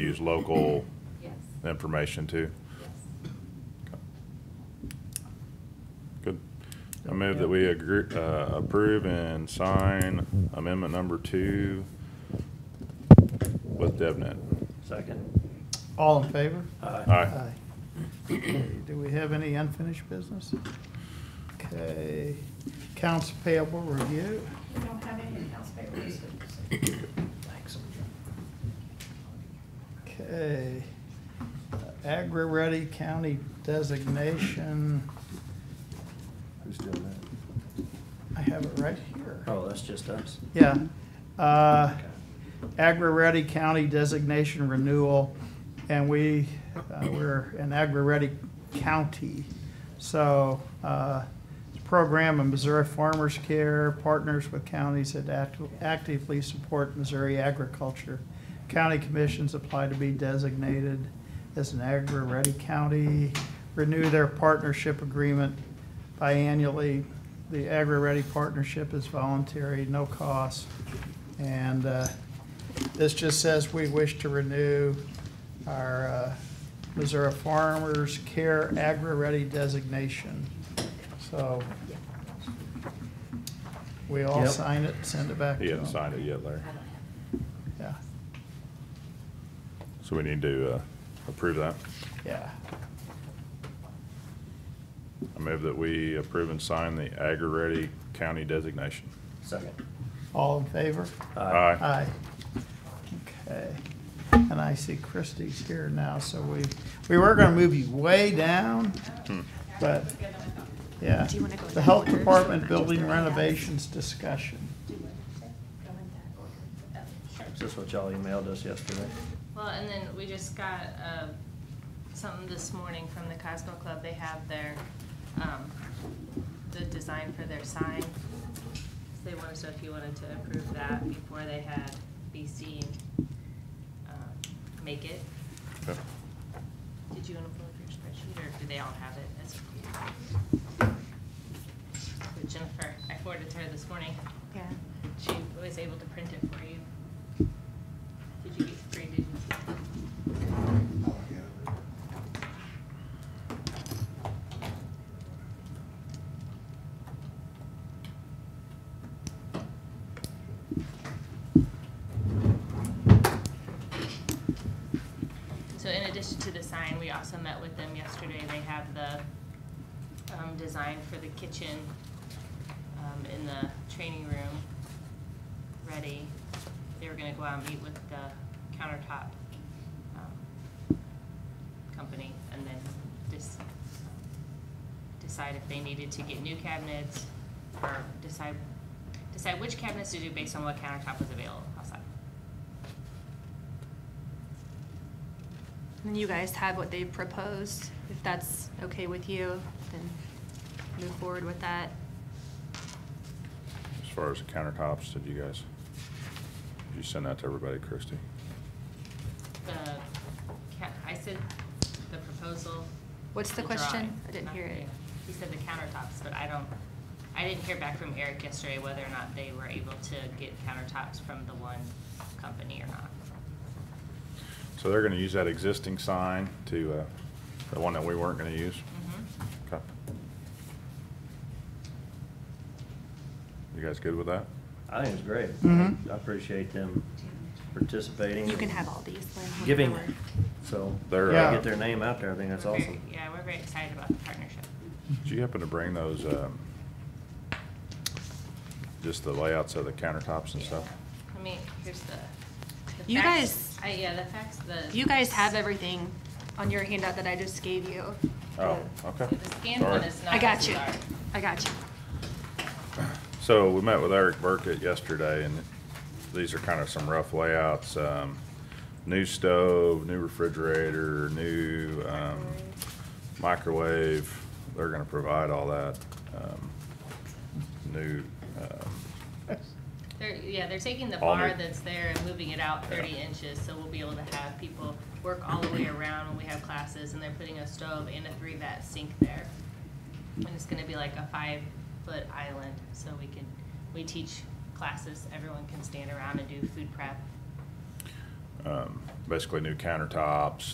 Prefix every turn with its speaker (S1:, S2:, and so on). S1: use local
S2: Yes,
S1: information too.
S2: yes.
S1: Good. I move that we agree, uh, approve and sign amendment number two with DevNet.
S3: Second.
S4: All in favor?
S1: Aye.
S4: Okay, Do we have any unfinished business? Okay, accounts payable review.
S2: We don't have any accounts payable this week.
S3: Thanks.
S4: Okay. Agri-ready county designation,
S3: Who's doing that?
S4: I have it right here.
S3: Oh, that's just us.
S4: Yeah. Uh,
S3: Okay.
S4: Agri-ready county designation renewal, and we, uh, we're an agri-ready county. So uh, it's a program of Missouri Farmers Care partners with counties that act- actively support Missouri agriculture. County commissions apply to be designated as an agri-ready county, renew their partnership agreement biannually. The agri-ready partnership is voluntary, no cost. And uh, this just says we wish to renew our uh, Missouri Farmers Care Agri-Ready designation. So we all
S3: Yep.
S4: sign it, send it back to
S1: He
S4: them.
S1: hasn't signed it yet, Larry.
S2: I don't have.
S4: Yeah,
S1: So we need to, uh, approve that.
S4: yeah.
S1: I move that we approve and sign the Agarity County designation.
S3: Second.
S4: All in favor?
S1: Aye.
S4: Aye. Okay. And I see Christie's here now, so we, we were gonna move you way down,
S1: Hmm.
S4: but, yeah.
S5: Do you wanna go in
S4: The
S5: that
S4: health
S5: order?
S4: department
S5: Just the
S4: building
S5: right house.
S4: renovations discussion.
S2: Do what you said, go in that order. Oh, sure.
S3: Is this what y'all emailed us yesterday?
S5: Well, and then we just got uh, something this morning from the Cosmo Club. They have their, um, the design for their sign. So They wanted, so if you wanted to approve that before they had BC um, make it,
S1: Okay.
S5: did you want to pull up your spreadsheet, or do they all have it? as- So Jennifer, I forwarded to her this morning.
S2: Yeah.
S5: She was able to print it for you. Did you get free, did you? So in addition to the sign, we also met with them yesterday. They have the um, design for the kitchen um, in the training room ready. They were gonna go out and meet with the countertop um, company and then just decide if they needed to get new cabinets or decide, decide which cabinets to do based on what countertop was available outside.
S6: And you guys have what they proposed. If that's okay with you, then move forward with that.
S1: As far as the countertops, did you guys, did you send that to everybody, Christie?
S5: The, ca- I said the proposal.
S6: What's the question?
S5: drawing,
S6: I didn't
S5: not
S6: hear
S5: the-
S6: it.
S5: He said the countertops, but I don't, I didn't hear back from Eric yesterday whether or not they were able to get countertops from the one company or not.
S1: So they're gonna use that existing sign to, uh, the one that we weren't gonna use?
S5: Mhm.
S6: Mm-hmm.
S1: Okay. You guys good with that?
S3: I think it's great.
S4: Mhm.
S3: I appreciate them participating.
S6: You can have all these. Lynn, whatever
S3: Giving,
S6: work.
S3: so they
S1: They're,
S4: Yeah.
S1: uh,
S3: get their name out there. I think that's
S5: We're very-
S3: awesome.
S5: Yeah, we're very excited about the partnership.
S1: Do you happen to bring those, um, just the layouts of the countertops and stuff?
S5: I mean, here's the. the
S6: You
S5: facts-
S6: guys-
S5: I, yeah, the facts, the.
S6: You guys have everything on your handout that I just gave you.
S1: Oh,
S6: The-
S1: okay.
S5: The scanned one
S1: Sorry.
S5: is not.
S6: I got
S5: as
S6: you.
S5: large.
S6: I got you.
S1: So we met with Eric Burkett yesterday, and these are kind of some rough layouts. Um, new stove, new refrigerator, new um, microwave. They're going to provide all that. Um, new. Um,
S5: They're, yeah, they're taking the
S1: All
S5: bar
S1: new.
S5: that's there and moving it out
S1: Yeah.
S5: thirty inches, so we'll be able to have people work all the way around when we have classes, and they're putting a stove and a three-vat sink there. And it's gonna be like a five-foot island, so we can, we teach classes, everyone can stand around and do food prep.
S1: um, basically new countertops